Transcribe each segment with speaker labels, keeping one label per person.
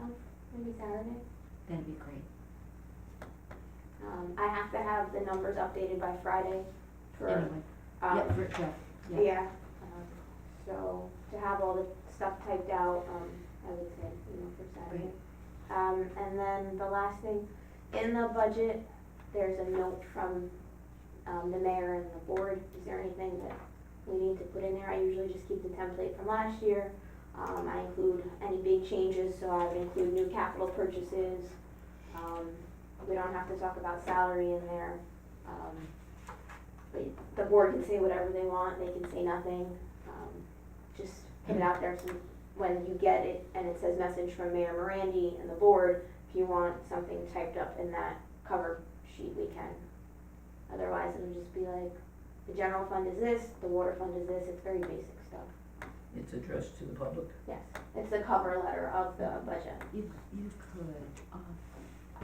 Speaker 1: Oh, Saturday.
Speaker 2: That'd be great.
Speaker 1: Um, I have to have the numbers updated by Friday for,
Speaker 2: Anyway, yeah,
Speaker 1: um,
Speaker 2: for Jeff, yeah.
Speaker 1: yeah. um, So to have all the stuff typed out, um, I would say, you know, for Saturday. Um, and then the last thing, in the budget, there's a note from, um, the mayor and the board. Is there anything that we need to put in there? I usually just keep the template from last year. Um, I include any big changes, so I would include new capital purchases. Um, we don't have to talk about salary in there. Um, but the board can say whatever they want, they can say nothing. Um, just put it out there so when you get it and it says message from Mayor Morandi and the board, if you want something typed up in that cover sheet, we can. Otherwise, it'll just be like, the general fund is this, the water fund is this, it's very basic stuff.
Speaker 3: It's addressed to the public.
Speaker 1: Yes, it's the cover letter of the budget.
Speaker 2: You, you could, uh,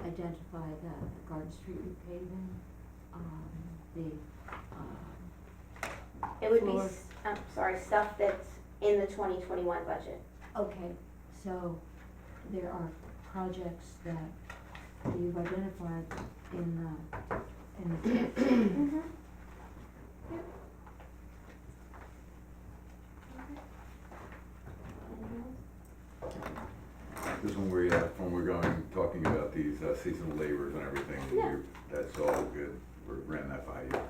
Speaker 2: identify the Garden Street repaving, um, the, um,
Speaker 1: It would be,
Speaker 2: Floor.
Speaker 1: s- I'm sorry, stuff that's in the twenty twenty-one budget.
Speaker 2: okay, so there are projects that you've identified in the, in the,
Speaker 1: Mm-hmm. Mm-hmm.
Speaker 4: This is when we, uh, when we're going, talking about these uh, seasonal laborers and everything,
Speaker 1: Yeah.
Speaker 4: you're- that's all good. We ran that by you.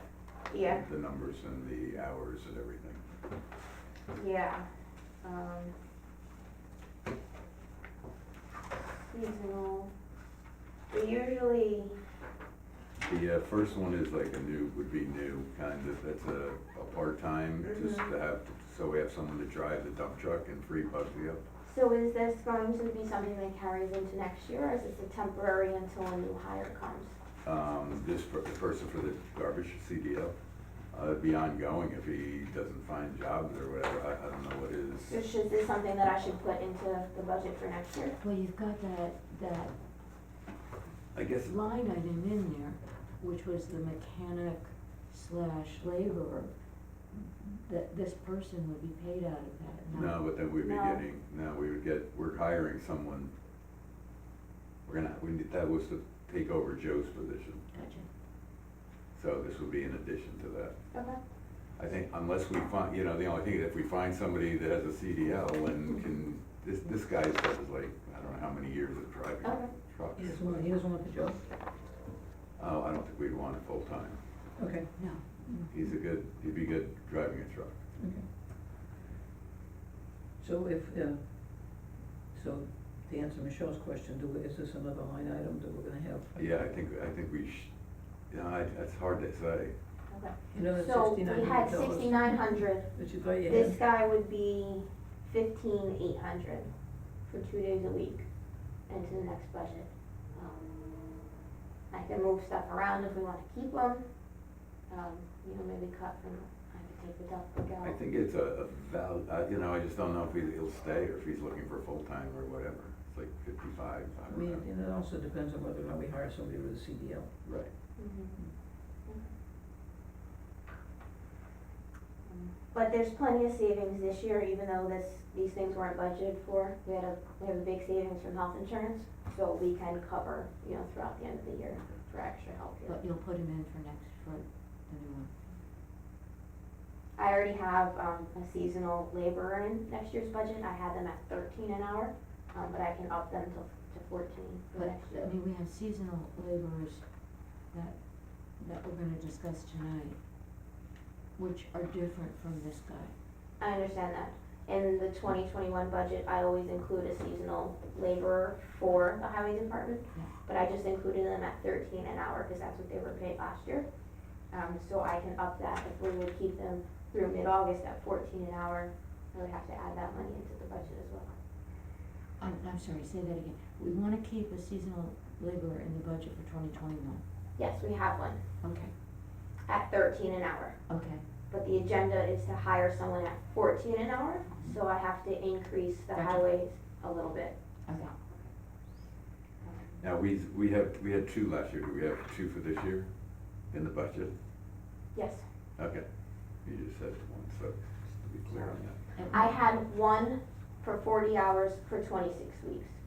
Speaker 1: Yeah,
Speaker 4: The numbers and the hours and everything.
Speaker 1: yeah. Um, Seasonal. We usually,
Speaker 4: The uh, first one is like a new, would be new, kind of, that's a, a part-time,
Speaker 1: Mm-hmm.
Speaker 4: just to have, so we have someone to drive the dump truck and free Bugsy up.
Speaker 1: so is this going to be something that carries into next year, or is this a temporary until a new hire comes?
Speaker 4: Um, this, per- the person for the garbage, CDL, uh, it'd be ongoing if he doesn't find jobs or whatever, I, I don't know what
Speaker 1: So
Speaker 4: is.
Speaker 1: should this something that I should put into the budget for next year?
Speaker 2: well, you've got that, that
Speaker 4: I guess,
Speaker 2: line item in there, which was the mechanic slash laborer. That this person would be paid out of that, not
Speaker 4: no, but then we'd be
Speaker 1: No.
Speaker 4: getting, no, we would get, we're hiring someone. We're gonna, we need, that was to take over Joe's position,
Speaker 2: Gotcha.
Speaker 4: so this would be in addition to that.
Speaker 1: Okay.
Speaker 4: I think unless we find, you know, the only thing, if we find somebody that has a CDL and can, this, this guy's got his like, I don't know how many years of driving
Speaker 1: Okay.
Speaker 4: trucks.
Speaker 3: He doesn't want, he doesn't want the job.
Speaker 4: Oh, I don't think we'd want it full-time.
Speaker 3: Okay,
Speaker 2: No,
Speaker 4: He's a good, he'd be good driving a truck.
Speaker 3: okay. So if, uh, so to answer Michelle's question, do, we- is this another line item that we're gonna have?
Speaker 4: Yeah, I think, I think we sh you know, I, that's hard to say.
Speaker 1: Okay.
Speaker 3: You know, that's
Speaker 1: So
Speaker 3: sixty-nine
Speaker 1: we had
Speaker 3: hundred dollars.
Speaker 1: sixty-nine hundred,
Speaker 3: That you thought you
Speaker 1: this
Speaker 3: had,
Speaker 1: guy would be fifteen eight hundred for two days a week into the next budget. Um, I can move stuff around if we wanna keep them, um, you know, maybe cut from, I could take the duck
Speaker 4: I
Speaker 1: out.
Speaker 4: think it's a, a val, uh, you know, I just don't know if he- he'll stay or if he's looking for full-time or whatever. It's like fifty-five, I
Speaker 3: I
Speaker 4: don't
Speaker 3: mean,
Speaker 4: know.
Speaker 3: and it also depends on whether or not we hire somebody with a CDL.
Speaker 4: Right.
Speaker 1: Mhm. But there's plenty of savings this year, even though this, these things weren't budgeted for. We had a, we have a big savings from health insurance, so we can cover, you know, throughout the end of the year for extra help here.
Speaker 2: but you'll put him in for next, for the new one.
Speaker 1: I already have, um, a seasonal laborer in next year's budget. I had them at thirteen an hour, um, but I can up them to, to fourteen for
Speaker 2: But,
Speaker 1: next
Speaker 2: I
Speaker 1: year.
Speaker 2: mean, we have seasonal laborers that, that we're gonna discuss tonight, which are different from this guy.
Speaker 1: I understand that. In the twenty twenty-one budget, I always include a seasonal laborer for the highway department,
Speaker 2: Yeah.
Speaker 1: but I just included them at thirteen an hour, cause that's what they were paid last year. Um, so I can up that if we would keep them through mid-August at fourteen an hour, I would have to add that money into the budget as well.
Speaker 2: I'm, I'm sorry, say that again. We wanna keep a seasonal laborer in the budget for twenty twenty-one.
Speaker 1: Yes, we have one,
Speaker 2: Okay,
Speaker 1: at thirteen an hour,
Speaker 2: okay,
Speaker 1: but the agenda is to hire someone at fourteen an hour, so I have to increase the
Speaker 2: Gotcha.
Speaker 1: highways a little bit.
Speaker 2: okay.
Speaker 4: Now, we, we have, we had two last year. Do we have two for this year in the budget?
Speaker 1: Yes,
Speaker 4: Okay, you just said one, so just to be clear on that.
Speaker 2: And-
Speaker 1: I had one for forty hours for twenty-six weeks.